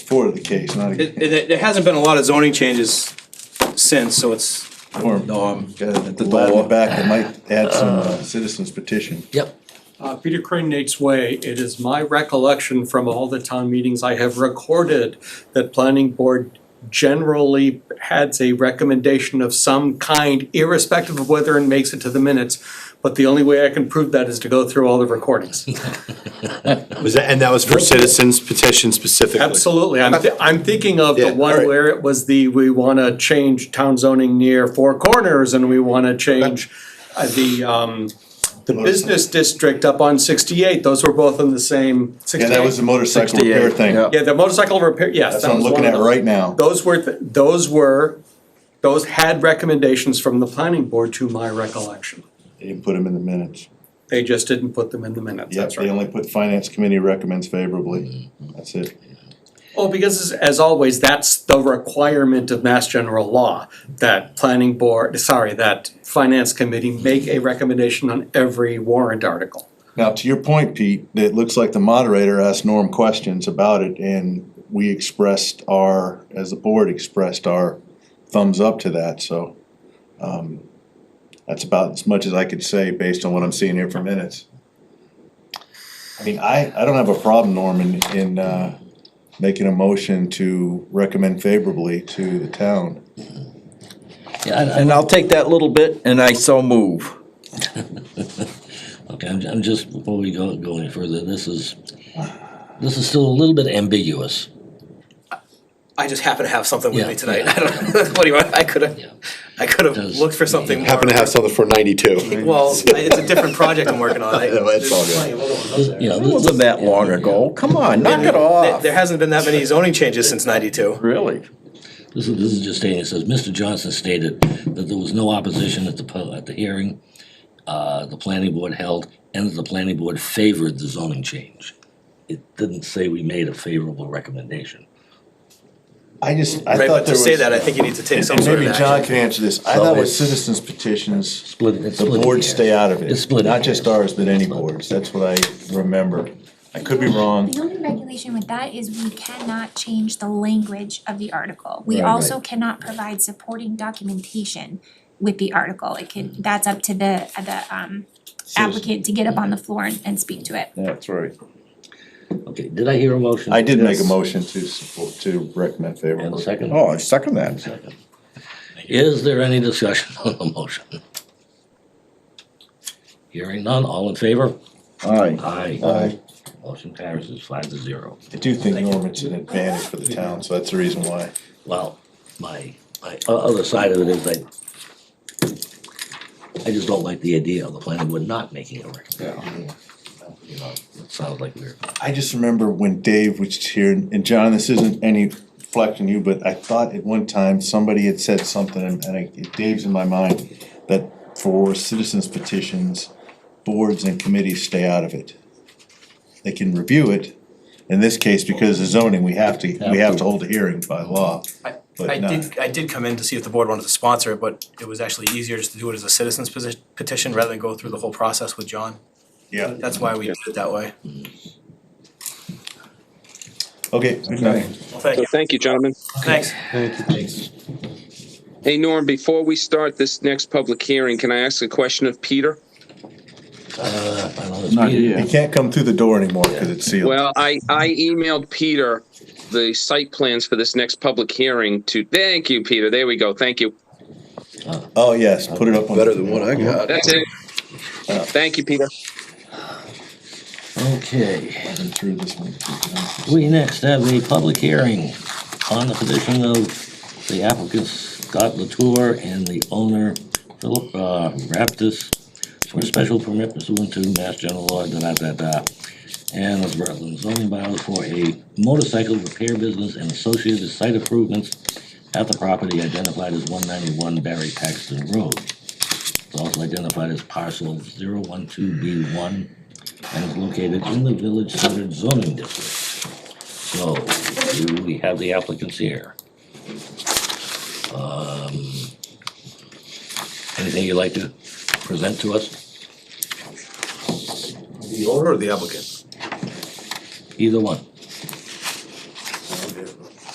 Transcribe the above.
before the case, not, It, a- it, there hasn't been a lot of zoning changes since, so it's, or, No, I'm got at a the lad in the door. back that might add some uh, citizens petition. Yep. Uh, Peter Crane, Nate's Way, it is my recollection from all the town meetings I have recorded that planning board generally has a recommendation of some kind irrespective of whether it makes it to the minutes. But the only way I can prove that is to go through all the recordings. Was that, and that was for citizens petition specifically? Absolutely, I'm, thi- I'm thinking of the Yeah, one alright. where it was the, we wanna change town zoning near Four Corners and we wanna change uh, the, um, the business district up on sixty-eight, those were both in the same Yeah, that was the sixty-eight. motorcycle repair 68, thing. yeah. Yeah, the motorcycle repair, yes, That's that what I'm was looking one at of them. right now. Those were, th- those were, those had recommendations from the planning board to my recollection. They didn't put them in the minutes. They just didn't put them in the minutes, Yep, that's right. they only put finance committee recommends favorably. That's it. Oh, because as, as always, that's the requirement of Mass General Law, that planning board, sorry, that finance committee make a recommendation on every warrant article. Now, to your point, Pete, it looks like the moderator asked Norm questions about it and we expressed our, as the board expressed our thumbs up to that, so. um, That's about as much as I could say based on what I'm seeing here for minutes. I mean, I, I don't have a problem, Norm, in, in, uh, making a motion to recommend favorably to the town. Yeah, I- And I'll take that little bit and I so move. Okay, I'm, I'm just, before we go, go any further, this is, this is still a little bit ambiguous. I just happen to have something with Yeah, me tonight, I don't, what do you want, I could've, I could've Does- looked for something more. Happen to have something for ninety-two. Well, I- it's a different project I'm working on, I, there, No, it's all good. You know, It this- wasn't that long ago. Come on, knock it off. there hasn't been that many zoning changes since ninety-two. Really? This is, this is just stating, it says, Mr. Johnson stated that there was no opposition at the, pu- at the hearing, uh, the planning board held, and that the planning board favored the zoning change. It didn't say we made a favorable recommendation. I just, I thought Right, but there to was. say that, I think you need to take some And sort of maybe action. John can answer this. I So thought with it's- citizens petitions, Split, it's the split. boards stay out of it. It's split Not hairs. just ours, but any boards. That's what I remember. I could be wrong. The only regulation with that is we cannot change the language of the article. We Right, also cannot provide supporting documentation with the article. It can, that's up to the, uh, the um applicant to get up on the floor and, and speak to it. That's right. Okay, did I hear a motion? I did make a Yes. motion to support, to recommend And a favorably. second? Oh, I second that. Second. Is there any discussion on the motion? Hearing none, all in favor? Aye. Aye. Aye. Motion carries is five to zero. I do think Norman's an advantage for the town, so that's the reason why. Well, my, my o- other side of it is I, I just don't like the idea of the planning board not making a recommendation. You know, it sounds like we're, I just remember when Dave was here, and John, this isn't any flex on you, but I thought at one time somebody had said something, and I, Dave's in my mind, that for citizens petitions, boards and committees stay out of it. They can review it, in this case, because of zoning, we have to, we have to hold a hearing by law. I, But I not- did, I did come in to see if the board wanted to sponsor it, but it was actually easier just to do it as a citizens posi- petition rather than go through the whole process with John. Yeah. That's why we did it that way. Okay, okay. Well, Thank So you, thank you, gentlemen. thanks. Hey, Norm, before we start this next public hearing, can I ask a question of Peter? I don't know, it's Not Peter. He here. can't come through the door anymore, cause it's sealed. Well, I, I emailed Peter the site plans for this next public hearing to, thank you, Peter. There we go. Thank you. Oh, yes, put it up on. Better than what I got. That's it. Thank you, Peter. Okay, I've been through this one. we next have a public hearing on the petition of the applicant Scott Latour and the owner Philip uh, Raptis for a special permit pursuant to Mass General Law, da da da da. And of Rutland zoning bylaws for a motorcycle repair business and associated site improvements at the property identified as one ninety-one Barry Paxton Road. It's also identified as parcel 012 B one and is located in the village centered zoning district. So, do we have the applicants here? Um, Anything you'd like to present to us? The owner or the applicant? Either one.